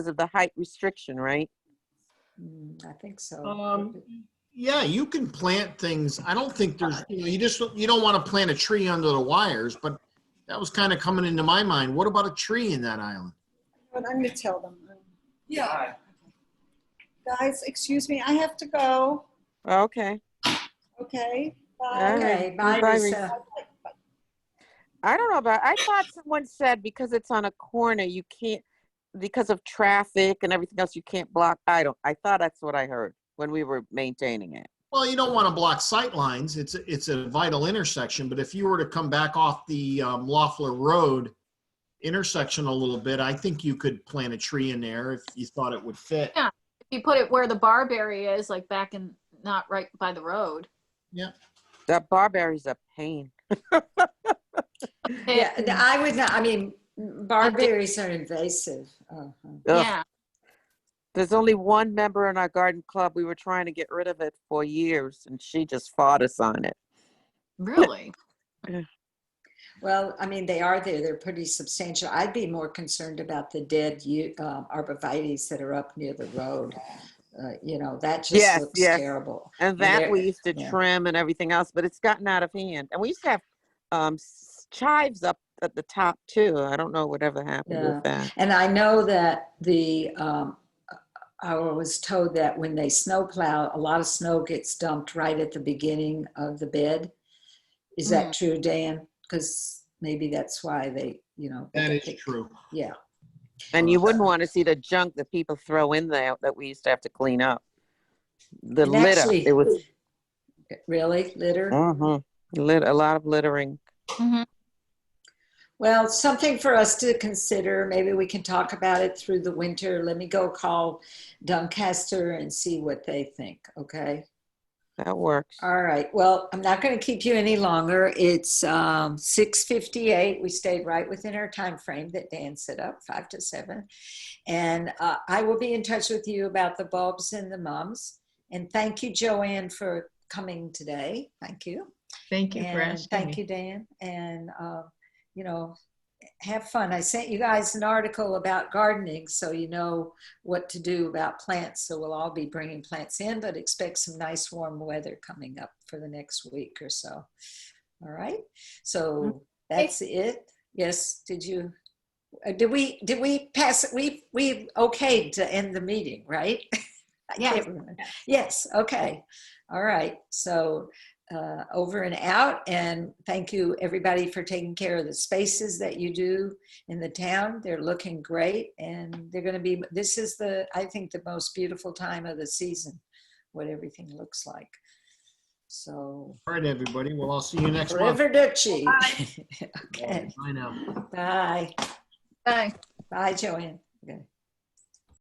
because of the height restriction, right? Mm, I think so. Um, Yeah, you can plant things. I don't think there's, you know, you just, you don't want to plant a tree under the wires, but that was kind of coming into my mind. What about a tree in that island? But I'm gonna tell them. Yeah. Guys, excuse me, I have to go, Oh, Okay. okay? All right. Bye. Okay, uh, bye, Bye, Lisa. I don't know about, I thought someone said because it's on a corner, you can't, because of traffic and everything else, you can't block. I don't, I thought that's what I heard when we were maintaining it. Well, you don't want to block sight lines. It's, it's a vital intersection, but if you were to come back off the um, Loeffler Road intersection a little bit, I think you could plant a tree in there if you thought it would fit. Yeah. If you put it where the barberry is, like back in, not right by the road. That barberry's a pain. Yeah, It- th- I would not, I mean, barberries are invasive. Uh-huh. Ugh. Yeah, There's only one member in our garden club. We were trying to get rid of it for years and she just fought us on it. really. Well, I mean, they are there, they're pretty substantial. I'd be more concerned about the dead yew- uh, arborvitaes that are up near the road. Uh, You know, that Yes, just looks yes. terrible. And that Yeah, we used to yeah. trim and everything else, but it's gotten out of hand. And we used to have um, s- chives up at the top too. I don't know whatever happened Yeah. with that. And I know that the, um, I was told that when they snowplow, a lot of snow gets dumped right at the beginning of the bed. Is Mm. that true, Dan? Because maybe that's why they, you know. That they is pick- true. Yeah, And you wouldn't want to see the junk that people throw in there that we used to have to clean up. The And litter, actually- it was really, litter? mhm, lit, a lot of littering. Mhm. Well, something for us to consider. Maybe we can talk about it through the winter. Let me go call Doncaster and see what they think, okay? That works. All right. Well, I'm not going to keep you any longer. It's um, 6:58. We stayed right within our time frame that Dan set up, five to seven. And uh, I will be in touch with you about the bulbs and the mums. And thank you, Joanne, for coming today. Thank you. Thank you for And asking thank me. you, Dan. And um, you know, have fun. I sent you guys an article about gardening, so you know what to do about plants. So we'll all be bringing plants in, but expect some nice warm weather coming up for the next week or so. All right. So that's it. Yes. Did you? uh, Did we? Did we pass? it? We we okayed to end the meeting, right? I Yes. can't remember. Yes. Okay. All right. So uh, over and out. And thank you, everybody, for taking care of the spaces that you do in the town. They're looking great. And they're going to be, this is the, I think, the most beautiful time of the season, what everything looks like. So, All right, everybody. Well, I'll see you next month. River Duchy. okay. Bye now. Bye. Bye. Bye, Joanne. Okay.